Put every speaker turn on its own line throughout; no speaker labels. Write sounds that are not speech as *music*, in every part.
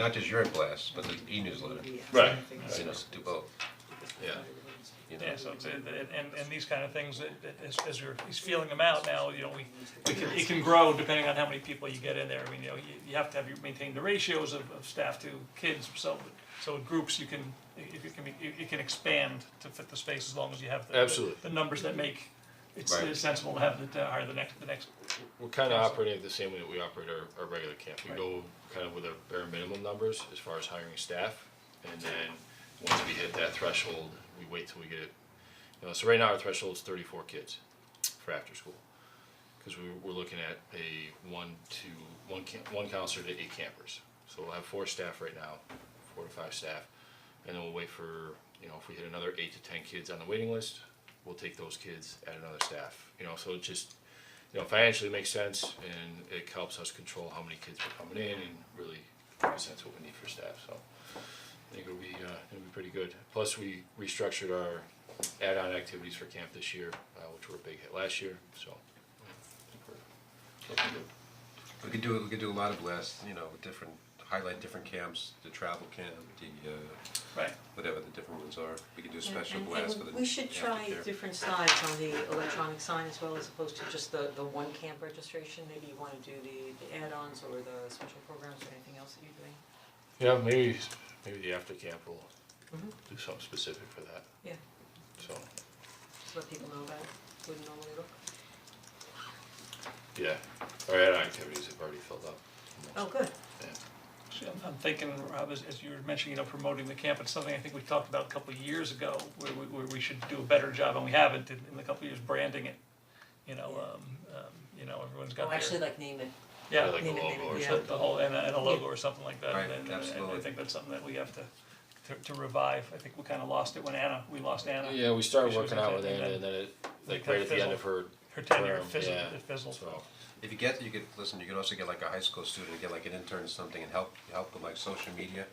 Not just your blast, but the e-newsletter,
Right.
you know, do both,
Yeah.
you know.
Yeah, so it's, and, and, and these kind of things, that- that as, as you're, he's feeling them out now, you know, we, we can, it can grow depending on how many people you get in there, I mean, you know, you, you have to have, you maintain the ratios of, of staff to kids, so, so in groups, you can, it, it can be, it, it can expand to fit the space as long as you have the, the,
Absolutely.
the numbers that make, it's
Right.
it's sensible to have the, to hire the next, the next,
We're kind of operating the same way that we operate our, our regular camp. We
Right.
go kind of with our bare minimum numbers as far as hiring staff. And then, once we hit that threshold, we wait till we get it. You know, so right now our threshold is thirty-four kids for after school. Cause we, we're looking at a one to, one camp, one counselor to eight campers. So we'll have four staff right now, four to five staff. And then we'll wait for, you know, if we hit another eight to ten kids on the waiting list, we'll take those kids, add another staff, you know, so it just, you know, financially it makes sense and it helps us control how many kids are coming in and really makes sense what we need for staff, so. I think it'll be, uh, it'll be pretty good. Plus, we restructured our add-on activities for camp this year, uh, which were a big hit last year, so. I think we're looking good.
We could do, we could do a lot of blasts, you know, with different, highlight different camps, the travel camp, the, uh,
right,
whatever the different ones are. We could do a
And-
special
and-
blast for
and
the
we should try
aftercare.
different sides on the electronic sign as well, as opposed to just the the one camp registration, maybe you wanna do the the add-ons or the special programs or anything else that you're doing,
Yeah, maybe, maybe the after camp will
Mhm.
do something specific for that,
yeah,
so,
just let people know about it, wouldn't normally look.
yeah. Our add-on activities have already filled up.
Oh, good,
Yeah.
So I'm- I'm thinking, Rob, as, as you were mentioning, you know, promoting the camp, it's something I think we talked about a couple of years ago, where we, where we should do a better job, and we haven't in, in the couple of years branding it. You know, um, um, you know, everyone's got
oh,
their.
actually like name it,
Yeah,
Like a
Maybe, maybe,
logo or
yeah.
something.
the whole, and a, and a logo or something like that,
Right,
and, and and I
absolutely.
think that's something that we have to, to, to revive, I think we kinda lost it when Anna, we lost Anna.
Yeah, we started
She was
working out with
intending
Anna,
to-
and then it, like
kinda
right at the end
fizzled.
of her
Her tenure
term,
fizzled,
yeah.
it fizzled.
So,
If you get, you could, listen, you could also get like a high school student, get like an intern or something and help, help with like social media.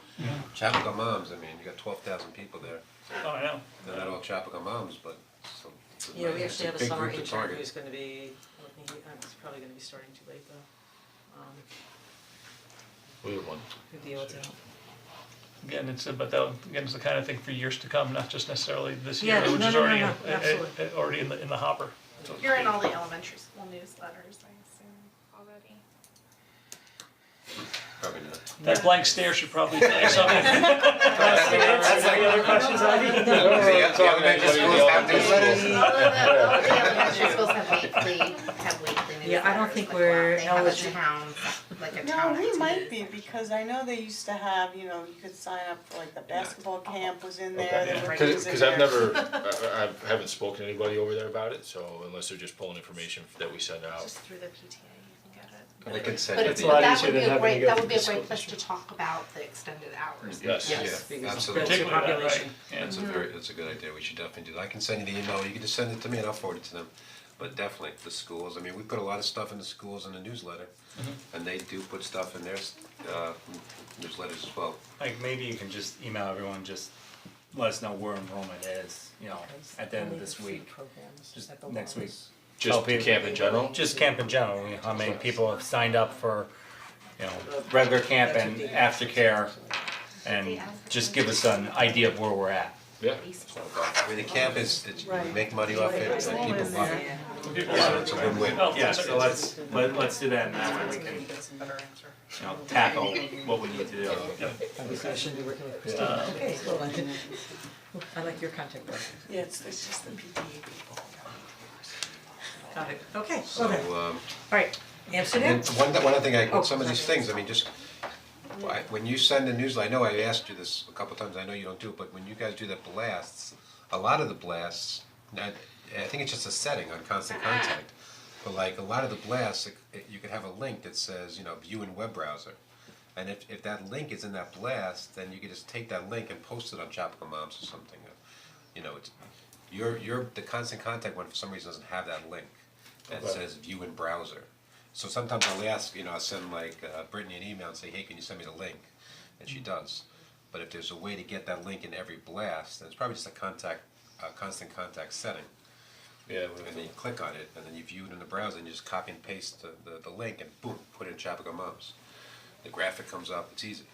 Chapaca moms, I mean, you got twelve thousand people there,
Oh, I know.
they're not all Chapaca moms, but some. it's a
yeah,
nice-
we actually have a
big
summer
group to
intern
target.
who's gonna be, looking- uh, it's probably gonna be starting too late though, um,
we have one.
who'd be able to help.
Again, it's, but that, again, it's the kind of thing for years to come, not just necessarily this year,
Yeah,
which
no,
is
no, no,
already, in-
no,
eh, eh,
absolutely.
eh, already in the, in the hopper.
You're in all the elementary school newsletters, I assume,
*laughs*
already.
Probably not.
That blank stare should probably tell you something. That's
like-
any other questions, Ivy?
The elementary schools have newsletters.
All of the, all of the elementary schools have weekly, have weekly newsletters.
Yeah, I don't think
like,
we're
They have a
eligible.
town, like a
No,
town.
we
activity.
might be, because I know they used to have, you know, you could sign up for like the basketball camp was in there,
Okay.
there were
Cause,
things in
'cause I've
there.
never, I, I I haven't spoken to anybody over there about it, so unless they're just pulling information that we send out.
Just through the PTA, you can get it.
They can send
But
it
it's,
to
but
you.
that would be a great, that would be a great place to talk about the extended hours.
Yes.
Yes,
Yeah,
because
absolutely.
that's your
Particularly that, right,
population,
yeah.
That's a very, that's a good idea, we should definitely do that, I can send you the email, you can just send it to me and I'll forward it to them. But definitely, the schools, I mean, we put a lot of stuff in the schools in the newsletter, and they do put stuff in their uh newsletters as well.
Like maybe you can just email everyone, just let us know where enrollment is, you know, at the end of this week, just next week.
Just
Help you.
camp in general?
Just camp in general, you know, how many people have signed up for, you
Uh,
know, regular camp and aftercare. And just give us an idea of where we're at.
Yeah.
I mean, the camp is, it's, we make money off it, and people love it,
yeah,
so it's a win-win.
Oh,
Yeah,
it's-
so let's, let, let's do that and that way we can, you
that's a better answer.
know, tackle what we need to do.
I shouldn't be working with Christine. Okay, well, I- I like your contact person.
Yeah, it's, it's just the PTA.
Got it, okay,
So,
okay,
um,
alright, Amsterdam?
and one, th- one other thing, I, with some of
Oh,
these
sorry.
things, I mean, just, why- when you send the newsletter, I know I asked you this a couple times, I know you don't do it, but when you guys do the blasts, a lot of the blasts, I, I think it's just a setting on constant
Uh-huh.
contact, but like, a lot of the blasts, it- it- you could have a link that says, you know, view in web browser. And if, if that link is in that blast, then you could just take that link and post it on Chapaca Moms or something, Uh, you know, it's, your, your, the constant contact one for some reason doesn't have that link that says view in browser. So sometimes I'll ask, you know, I'll send like uh, Brittany an email and say, hey, can you send me the link? And she does. But if there's a way to get that link in every blast, then it's probably just a contact, uh, constant contact setting.
Yeah,
And then you click on it, and then you view it in the browser, and you just copy and paste the, the, the link and boom, put it in Chapaca Moms. The graphic comes up, it's easy.